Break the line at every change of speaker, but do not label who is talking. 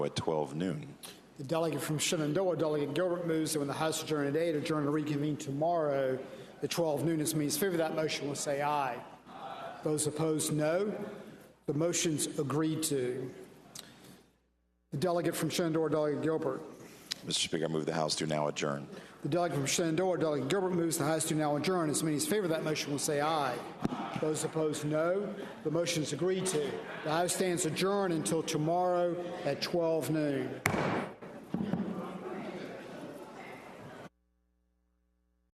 at 12 noon.
The delegate from Shenandoah, Delegate Gilbert, moves that when the House adjourn at 8, adjourn to reconvene tomorrow at 12 noon. As means favor of that motion will say aye. Those opposed, no. The motion's agreed to. The delegate from Shenandoah, Delegate Gilbert.
Mr. Speaker, I move the House to now adjourn.
The delegate from Shenandoah, Delegate Gilbert, moves the House to now adjourn. As many as favor that motion will say aye. Those opposed, no. The motion is agreed to. The House stands adjourned until tomorrow at 12 noon.